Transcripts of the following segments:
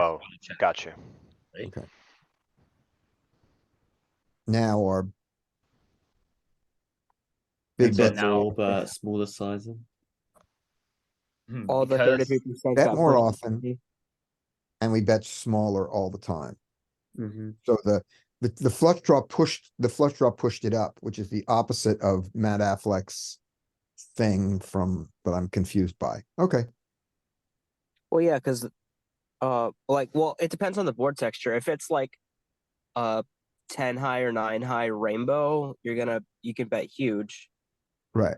Oh, wanna check, got you. right? Okay. Now our. Big Big So bet, bets now- are all but smaller sizing. Hmm, All the because- thirty-three percent. bet more often. And we bet smaller all the time. Mm-hmm. So the, the, the flush draw pushed, the flush draw pushed it up, which is the opposite of Matt Affleck's thing from, but I'm confused by. Okay, Well, yeah, because, uh, like, well, it depends on the board texture. If it's like, uh, ten high or nine high rainbow, you're gonna you can bet huge. right.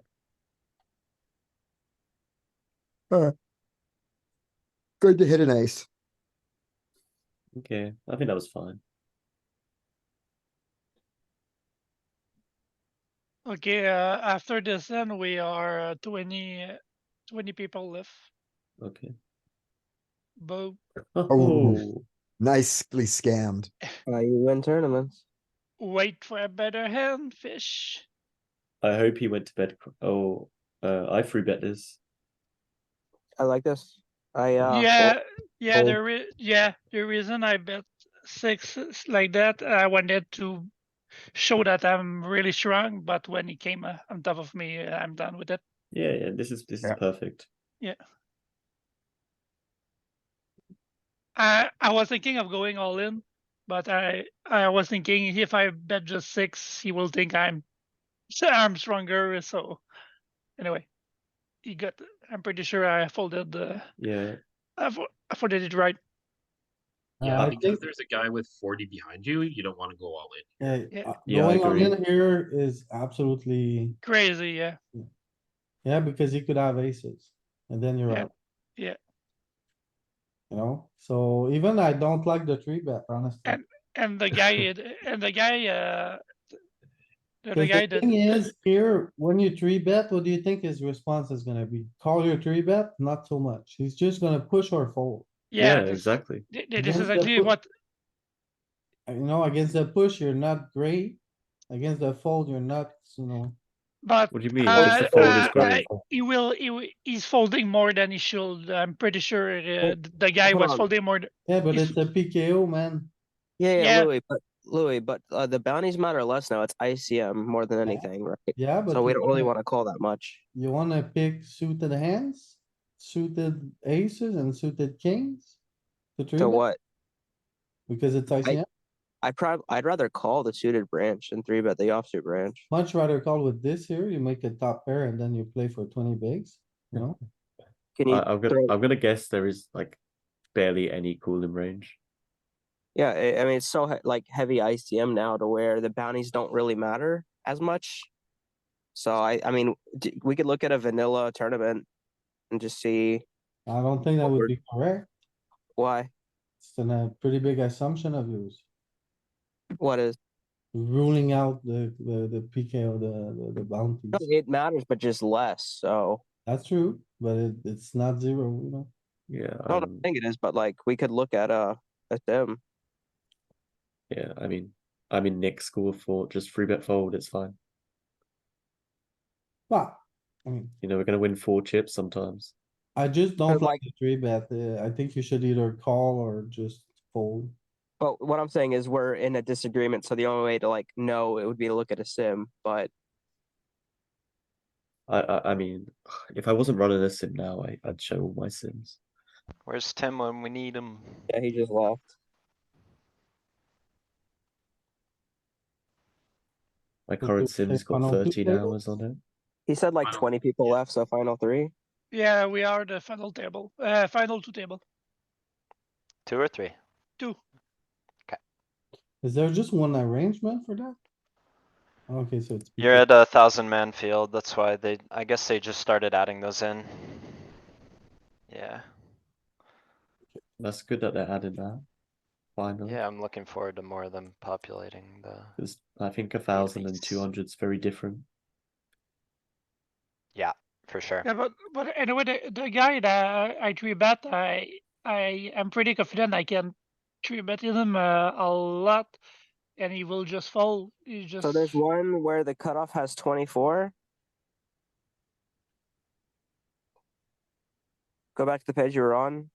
Alright. Good to hit an ace. Okay, I think that was fine. Okay, uh, after this then we are uh, 20, 20 people left. Okay. But Oh. Nicely scammed. Uh, you win tournaments. wait for a better hand, fish. I hope he went to bed. cr- Oh, uh, I free bet this. I like this. I uh, yeah, yeah. fold. The re- yeah, the reason I bet six is like that, I wanted to show that I'm really strong. But when he came uh, on top of me, uh, I'm done with it. Yeah, yeah. This is this Yeah. is perfect. I I was thinking of going all in, but I I was thinking if I bet just six, he will think I'm so I'm stronger. So anyway, he got. I'm pretty sure I folded the Yeah. I, fo- I folded it right. Yeah, I because think there's a guy with forty behind you, you don't wanna go all in. uh, Yeah. uh, Yeah, I going all agree. in here is absolutely, Crazy, yeah, yeah, because you could have aces and then you're Yeah, out. yeah. You know, so even I don't like the three bet, honestly. and the guy it- and the guy uh. th- The guy that Cause The thing is here, when you three bet, what do you think his response is gonna be? Call your three bet? Not so much. He's just gonna push or fold. yeah, this- exactly. thi- thi- this Against is the actually put- what Uh, You know, against the push, you're not great. Against the fold, you're not, you know. but What do you mean? Uh, Just the fold is uh, great. he will he wi- he's folding more than he should. I'm pretty sure uh, Oh. th- the guy hold was on. folding more. th- Yeah, but If- it's a PKO, man. yeah, yeah, yeah. Louis, but Louis, but uh, the bounties matter less now. It's ICM more than anything, right? Yeah, but. So we you don't really wanna- want to call that much. You wanna pick suited hands, suited aces and suited kings? to three So Mm-hmm. bet? what? Because it's ICM. I prob I'd rather call the suited branch and three bet the offsuit branch. Much rather call with this here. You make a top pair and then you play for twenty bigs, you know? Can you? I, I'm gonna throw- I'm gonna guess there is like barely any cooling range. Yeah, I, I mean it's so he- like heavy ICM now to where the bounties don't really matter as much. So I, I mean, d- we could look at a vanilla tournament and just see I don't think that would be correct. why It's then a pretty big assumption of yours. what is Ruling out the, the, the PKO, the, the- the bounties. no, it matters, but just less. So That's true, but it, it's not zero, you know? Yeah. I don't um, think it is, but like we could look at a a sim. Yeah. I mean, I'm in Nick's school for just free bet fold. It's fine. But, I mean, You know, we're gonna win four chips sometimes. I just like- don't like the three bet. Uh, I think you should either call or just fold. But what I'm saying is we're in a disagreement. So the only way to like know it would be to look at a sim. But I I, I mean, if I wasn't running a sim now, I, I'd show all my sims. Where's Tim when we need him? yeah, he just left. My Could current do sim's a got funnel two 13 hours on it. He said like Final- 20 people left. So final three. Yeah, we are the final table, uh, final two table. Two or three? Is there just one arrangement for that? Okay, so it's. You're at a thousand man field, that's why they, I guess they just started adding those in. Yeah, That's good that they're adding that. Finally. yeah, I'm looking forward to more of them populating the, Because I think a thousand and least. two hundred's very different. for sure. Yeah, but but anyway, the, the guy that I three bet, I I am pretty confident I can three bet him uh, a lot, and he will just fall. He just So there's one where the cutoff has 24. Go back to the page you were on.